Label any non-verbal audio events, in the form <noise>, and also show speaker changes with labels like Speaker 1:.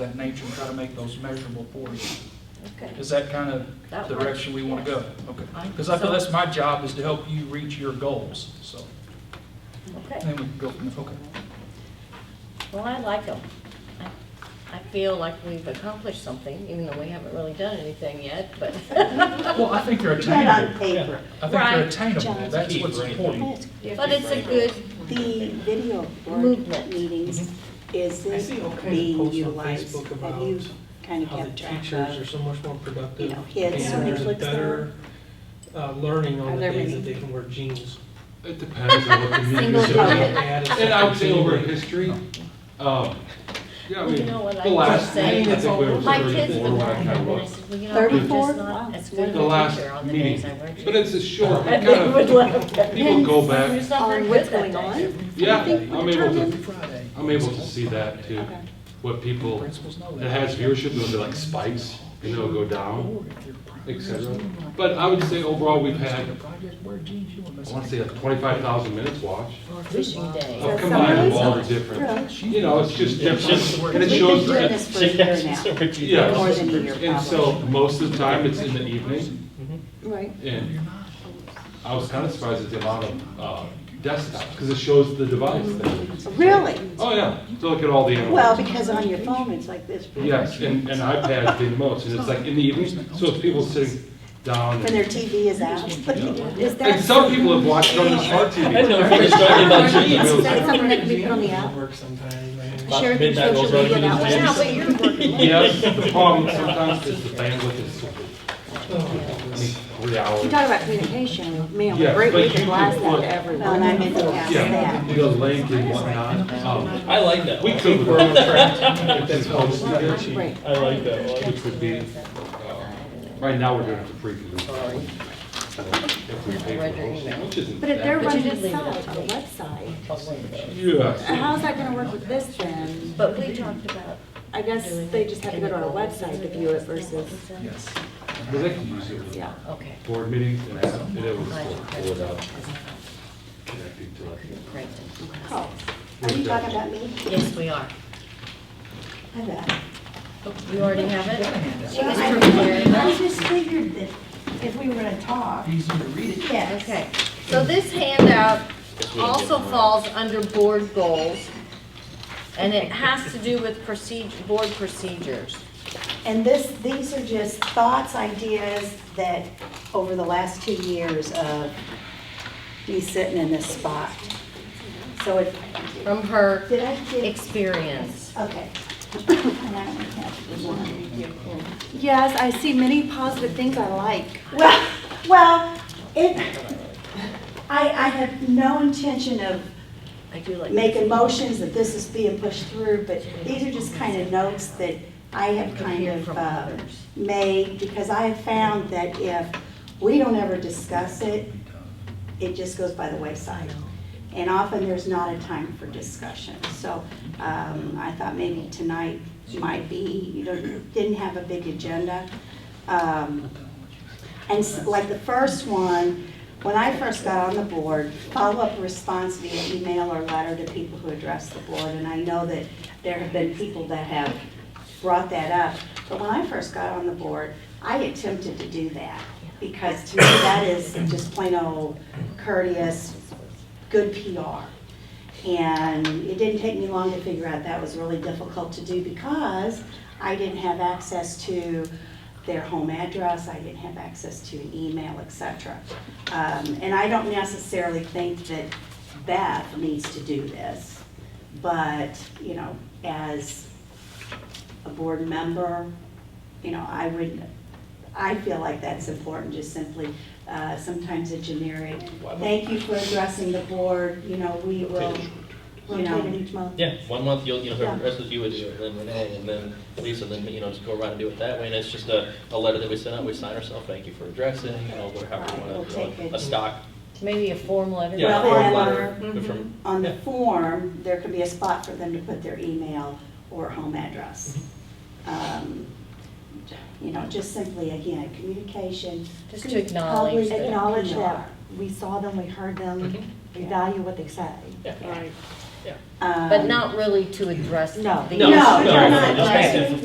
Speaker 1: that nature and try to make those measurable for you.
Speaker 2: Okay.
Speaker 1: Is that kind of
Speaker 2: That
Speaker 1: the
Speaker 2: works,
Speaker 1: direction we want to
Speaker 2: yes.
Speaker 1: go? Okay. Because I feel that's my job is to help you reach your goals, so.
Speaker 2: Okay,
Speaker 1: Then we can go from there, okay.
Speaker 2: well, I like them. I feel like we've accomplished something, even though we haven't really done anything yet,
Speaker 3: <laughs>
Speaker 2: but.
Speaker 1: Well, I think they're
Speaker 4: Right on
Speaker 1: attainable. Yeah,
Speaker 4: paper.
Speaker 1: I think they're
Speaker 2: Right.
Speaker 1: attainable, that's
Speaker 3: Keep
Speaker 1: what's
Speaker 3: or anything.
Speaker 1: important.
Speaker 2: But it's a good,
Speaker 4: The video board
Speaker 2: Movement.
Speaker 4: meetings, is
Speaker 5: Mm-hmm. I see all
Speaker 4: it
Speaker 5: kinds of
Speaker 4: being
Speaker 5: posts on
Speaker 4: utilized?
Speaker 5: Facebook
Speaker 4: Have you
Speaker 5: about
Speaker 4: kind of
Speaker 5: how the
Speaker 4: kept track
Speaker 5: teachers are
Speaker 4: of?
Speaker 5: so much more productive.
Speaker 4: you know, kids
Speaker 5: And
Speaker 4: who
Speaker 5: there's a
Speaker 4: Netflix
Speaker 5: better uh, learning
Speaker 4: Are
Speaker 5: on the
Speaker 4: there
Speaker 5: days
Speaker 4: many?
Speaker 5: that they can wear jeans.
Speaker 3: It depends on what community.
Speaker 2: Single
Speaker 3: you're in.
Speaker 4: target.
Speaker 3: And I would say over history, um, yeah, I
Speaker 2: Well, you
Speaker 3: mean,
Speaker 2: know what I
Speaker 3: the
Speaker 2: was
Speaker 3: last, I
Speaker 2: saying?
Speaker 3: think we were
Speaker 2: my kids
Speaker 3: thirty-four
Speaker 2: would
Speaker 3: when
Speaker 2: like
Speaker 3: I
Speaker 2: them,
Speaker 3: kind of
Speaker 2: and I
Speaker 3: looked.
Speaker 2: said, well, you know, I'm just
Speaker 4: 34?
Speaker 2: not
Speaker 4: Wow.
Speaker 2: as good
Speaker 3: The
Speaker 2: a
Speaker 3: last
Speaker 2: teacher on the
Speaker 3: meeting.
Speaker 2: days I weren't.
Speaker 3: But it's a short, it
Speaker 2: And
Speaker 3: kind
Speaker 2: they would
Speaker 3: of, <laughs>
Speaker 2: love that.
Speaker 3: people go back,
Speaker 2: It's not very
Speaker 4: on
Speaker 2: good
Speaker 4: what's
Speaker 2: that
Speaker 4: going
Speaker 2: day.
Speaker 4: on?
Speaker 3: yeah,
Speaker 4: think we
Speaker 3: I'm able
Speaker 4: determined-
Speaker 3: to, I'm able to see that too.
Speaker 4: Okay.
Speaker 3: What people, it
Speaker 1: Principals know that.
Speaker 3: has viewership, those are like spikes, and they'll go down, et cetera. But I would say overall, we've had, I want to say like twenty-five thousand minutes watched.
Speaker 2: Fishing day.
Speaker 3: I've combined all the different,
Speaker 4: Really?
Speaker 3: you know, it's just different, and it
Speaker 4: We've
Speaker 3: shows,
Speaker 4: been doing
Speaker 3: that-
Speaker 4: this for a year now,
Speaker 3: yeah.
Speaker 4: more than a year
Speaker 3: And so
Speaker 4: probably.
Speaker 3: most of the time, it's in the evening,
Speaker 4: Right.
Speaker 3: and I was kind of surprised at the amount of uh, desktops, because it shows the device there.
Speaker 4: Really?
Speaker 3: Oh, yeah, to look at all the
Speaker 4: Well,
Speaker 3: animals.
Speaker 4: because on your phone, it's like this.
Speaker 3: Yes, and and iPads being most, and it's like in the evening, so it's people sitting down.
Speaker 4: When their TV is out. Is that-
Speaker 3: And some people have watched it on the smart TV.
Speaker 6: I know, if it's talking about cheese.
Speaker 4: Is that something that can be put on the
Speaker 5: At
Speaker 4: app?
Speaker 5: work sometimes, man.
Speaker 4: Share through
Speaker 6: midnight
Speaker 4: social
Speaker 6: rolls around,
Speaker 4: media
Speaker 6: you
Speaker 4: that way?
Speaker 6: can
Speaker 2: Yeah, but you're
Speaker 3: <laughs>
Speaker 2: working late.
Speaker 3: Yes, the problem sometimes is the bandwidth is stupid. I mean, three hours.
Speaker 7: You talk about communication, man,
Speaker 3: Yeah,
Speaker 7: we
Speaker 3: but
Speaker 7: we
Speaker 3: you
Speaker 7: can blast
Speaker 3: can
Speaker 7: that
Speaker 3: put-
Speaker 7: to
Speaker 4: Well, and Oh, I
Speaker 7: everyone.
Speaker 4: meant to ask
Speaker 3: Yeah,
Speaker 4: that.
Speaker 3: the link and whatnot. Um,
Speaker 6: I like that
Speaker 3: We
Speaker 6: one.
Speaker 3: could work on track. It's supposed to be-
Speaker 7: Right.
Speaker 6: I like that one.
Speaker 3: Which would be, uh, right now, we're doing it for free. 'cause we- so If we pay for the whole thing, which isn't.
Speaker 7: But if they're
Speaker 3: that
Speaker 7: running
Speaker 2: did
Speaker 7: the
Speaker 2: leave it
Speaker 7: site,
Speaker 2: at
Speaker 7: the website,
Speaker 3: bad. Yes.
Speaker 7: how's that gonna work with this then?
Speaker 2: But we talked about.
Speaker 7: I guess they just have to go to our website to view it versus,
Speaker 1: Yes.
Speaker 3: But they can use it
Speaker 7: yeah.
Speaker 3: for
Speaker 2: uh, Okay.
Speaker 3: board meetings and app, and it would just pull it up, uh, connecting to like.
Speaker 2: Great.
Speaker 4: Oh, Are you talking about me?
Speaker 2: Yes, we are.
Speaker 4: I bet.
Speaker 2: You already have it? She was
Speaker 4: I-
Speaker 2: prepared.
Speaker 4: I just figured that if we were gonna talk,
Speaker 1: Easy to read it.
Speaker 4: yes.
Speaker 2: Okay, so this handout also falls under board goals, and it has to do with procedure, board procedures.
Speaker 4: And this, these are just thoughts, ideas that over the last two years of me sitting in this spot. So it,
Speaker 2: From her
Speaker 4: did I get,
Speaker 2: experience.
Speaker 4: okay. And I only have one.
Speaker 7: Yes, I see many positive things I like.
Speaker 4: Well, well, it, I, I have no intention of
Speaker 2: I do like.
Speaker 4: making motions that this is being pushed through, but these are just kind of notes that I have kind
Speaker 2: Hear
Speaker 4: of
Speaker 2: from
Speaker 4: uh,
Speaker 2: others.
Speaker 4: made, because I have found that if we don't ever discuss it, it just goes by the wayside. And often there's not a time for discussion. So um, I thought maybe tonight might be, you don't didn't have a big agenda. Um, and s- like the first one, when I first got on the board, follow-up response via email or letter to people who address the board. And I know that there have been people that have brought that up. But when I first got on the board, I attempted to do that. Because to me, that is just plain old courteous, good PR. And it didn't take me long to figure out that was really difficult to do because I didn't have access to their home address, I didn't have access to an e, email, et cetera. Um, And I don't necessarily think that Beth needs to do this, but, you know, as a board member, you know, I would, I feel like that's important, just simply, uh, sometimes a generic, thank you for addressing the board, you know, we will, you know.
Speaker 7: Rotated each month.
Speaker 6: Yeah, one month you'll, you know,
Speaker 4: Yeah.
Speaker 6: the rest of you would do it, then Renee, and then Lisa, then, you know, just go around and do it that way. And it's just a, a letter that we send out, we sign ourselves, thank you for addressing, you know, or however you
Speaker 4: We'll
Speaker 6: want
Speaker 4: take
Speaker 6: to,
Speaker 4: it.
Speaker 6: a stock,
Speaker 2: Maybe a form letter.
Speaker 6: yeah,
Speaker 4: Well,
Speaker 6: a form
Speaker 4: and-
Speaker 6: letter, Mm-hmm. but from,
Speaker 4: On the form, there can be a spot for them to put their email or home address.
Speaker 6: Mm-hmm.
Speaker 4: Um, You know, just simply, again, communication.
Speaker 2: Just to acknowledge
Speaker 4: Public-
Speaker 2: that.
Speaker 7: Acknowledge that we saw them, we heard them, we value what they say.
Speaker 6: yeah.
Speaker 4: Right.
Speaker 6: But not really to address the
Speaker 8: No.
Speaker 6: issue.
Speaker 4: No,
Speaker 2: No, no,
Speaker 4: no, no,
Speaker 2: no.
Speaker 4: no.